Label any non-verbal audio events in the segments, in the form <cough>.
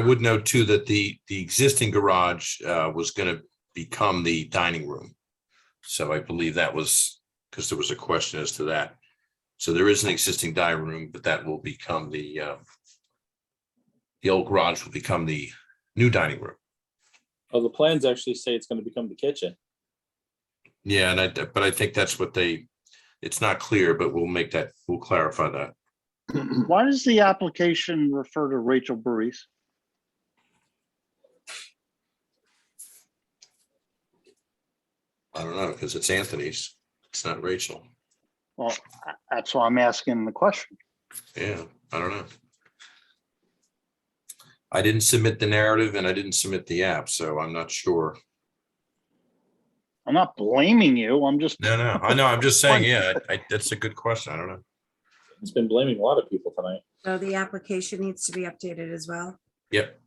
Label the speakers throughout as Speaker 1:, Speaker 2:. Speaker 1: I would note too that the, the existing garage uh, was going to become the dining room. So I believe that was, because there was a question as to that. So there is an existing dining room, but that will become the uh, the old garage will become the new dining room.
Speaker 2: Well, Oh, the plans actually say it's gonna become the kitchen.
Speaker 1: Yeah, and I, but I think that's what they, it's not clear, but we'll make that, we'll clarify that.
Speaker 3: Why does the application refer to Rachel Burris?
Speaker 1: I don't know, because it's Anthony's, it's not Rachel.
Speaker 3: Well, I- that's why I'm asking the question.
Speaker 1: Yeah, I don't know. I didn't submit the narrative and I didn't submit the app, so I'm not sure.
Speaker 3: I'm not blaming you.
Speaker 1: <laughs>
Speaker 3: I'm just,
Speaker 1: No, no, I know, I'm just saying, yeah, I, I- that's a good question. I don't know.
Speaker 2: It's been blaming a lot of people tonight.
Speaker 4: So the application needs to be updated as well.
Speaker 1: Yep.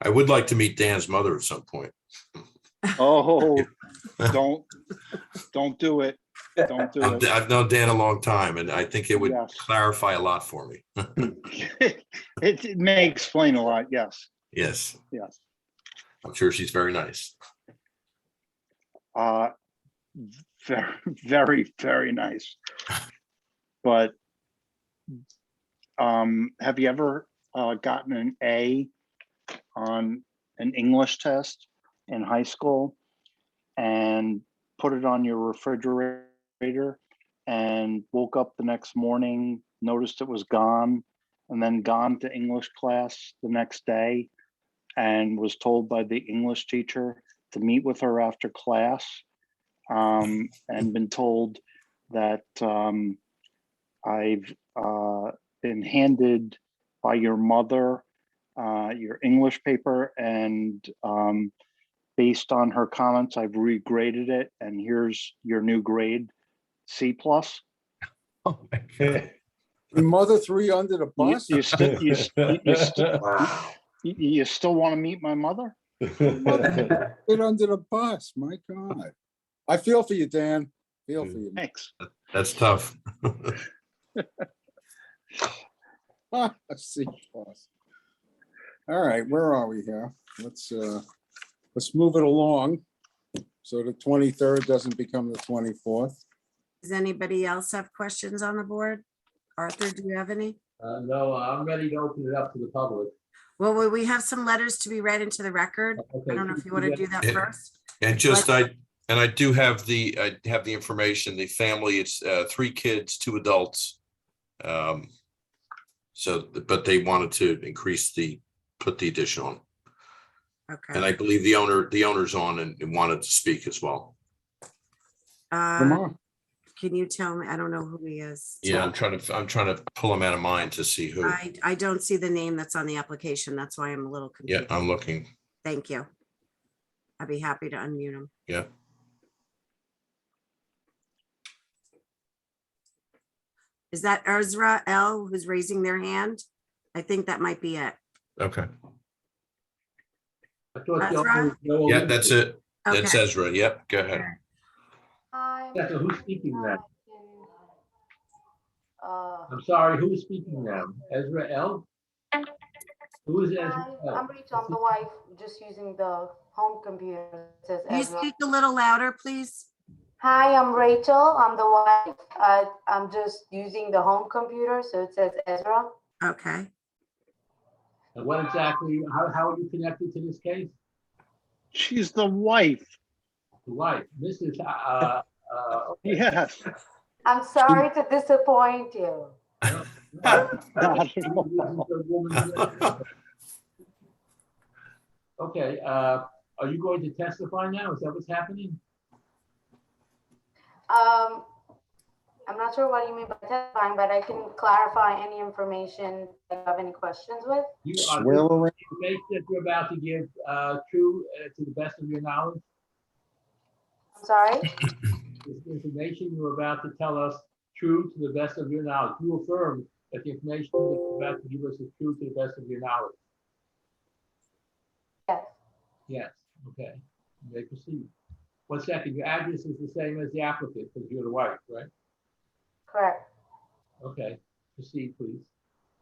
Speaker 1: I would like to meet Dan's mother at some point.
Speaker 3: oh, don't, don't do it. Don't do
Speaker 1: I've <laughs>
Speaker 3: it. <laughs>
Speaker 1: I've known Dan a long time and I think it would
Speaker 3: Yes.
Speaker 1: clarify a lot for me.
Speaker 3: It it may explain a lot. Yes,
Speaker 1: Yes,
Speaker 3: yes.
Speaker 1: I'm sure she's very nice.
Speaker 3: Uh, Very, very, very nice. But um, have you ever uh, gotten an A on an English test in high school and put it on your refrigerator and woke up the next morning, noticed it was gone, and then gone to English class the next day and was told by the English teacher to meet with her after class um, and been told that um, I've uh, been handed by your mother uh, your English paper, and um, based on her comments, I've regraded it, and here's your new grade, C plus.
Speaker 1: Oh,
Speaker 5: Your Mother three under the
Speaker 3: You,
Speaker 5: bus?
Speaker 3: you still you, st- you, st- you- you still want to meet my mother?
Speaker 5: Get under the bus, my God. I feel for you, Dan. Feel for you.
Speaker 3: Thanks.
Speaker 1: <laughs> That's tough.
Speaker 5: <laughs> Ah, C plus. All right, where are we here? Let's, uh, let's move it along. So the twenty-third doesn't become the twenty-fourth.
Speaker 4: Does anybody else have questions on the board? Arthur, do you have any?
Speaker 6: Uh, no, I'm ready to open it up to the public.
Speaker 4: Well, we- we have some letters to be read into the record. I don't know if you want to do that
Speaker 1: Yeah.
Speaker 4: first.
Speaker 1: And just I, and I do have the, I have the information, the family, it's uh three kids, two adults. Um So, but they wanted to increase the, put the addition on. And
Speaker 4: Okay.
Speaker 1: I believe the owner, the owner's on and and wanted to speak as well.
Speaker 4: Uh,
Speaker 5: Tomorrow.
Speaker 4: Can you tell me? I don't know who he is.
Speaker 1: Yeah, I'm trying to, I'm trying to pull him out of mind to see who.
Speaker 4: I, I don't see the name that's on the application. That's why I'm a little
Speaker 1: Yeah,
Speaker 4: confused.
Speaker 1: I'm looking.
Speaker 4: Thank you. I'd be happy to unmute him.
Speaker 1: Yeah.
Speaker 4: Is that Ezra L. who's raising their hand? I think that might be it.
Speaker 1: Okay.
Speaker 6: I thought
Speaker 4: That's
Speaker 6: the
Speaker 4: right.
Speaker 6: owner was Joe
Speaker 1: Yeah, that's
Speaker 6: Olivia.
Speaker 1: it. That's
Speaker 4: Okay,
Speaker 1: Ezra. Yep, go ahead.
Speaker 6: Yeah,
Speaker 7: Yeah,
Speaker 6: so who's speaking then?
Speaker 7: Uh,
Speaker 6: I'm sorry, who's speaking now? Ezra L? Who is
Speaker 7: uh, hi,
Speaker 4: Um,
Speaker 6: Ezra
Speaker 7: I'm
Speaker 6: L?
Speaker 7: Rita, I'm the wife, just using the home computer, it says
Speaker 4: you
Speaker 7: Ezra.
Speaker 4: speak a little louder, please.
Speaker 7: Hi, I'm Rachel, I'm the wife, I, I'm just using the home computer, so it says Ezra.
Speaker 4: Okay,
Speaker 6: And what exactly, how, how are you connected to this case?
Speaker 3: She's the wife.
Speaker 6: The wife, Mrs. Uh, uh,
Speaker 3: <laughs> Yes.
Speaker 7: I'm sorry to disappoint you.
Speaker 3: Not at all.
Speaker 6: Okay, uh, are you going to testify now? Is that what's happening?
Speaker 7: Um, I'm not sure what you mean by testifying, but I can clarify any information that you have any questions with.
Speaker 6: You are
Speaker 5: Swear around.
Speaker 6: information that you're about to give, uh, true, uh, to the best of your knowledge? <laughs>
Speaker 7: I'm sorry,
Speaker 6: Is the information you're about to tell us true to the best of your knowledge? You affirm that the information that you're about to give us is true to the best of your knowledge?
Speaker 7: yes,
Speaker 6: Yes, okay. You May proceed. One second, your address is the same as the applicant, because you're the wife, right?
Speaker 7: correct.
Speaker 6: Okay, proceed, please.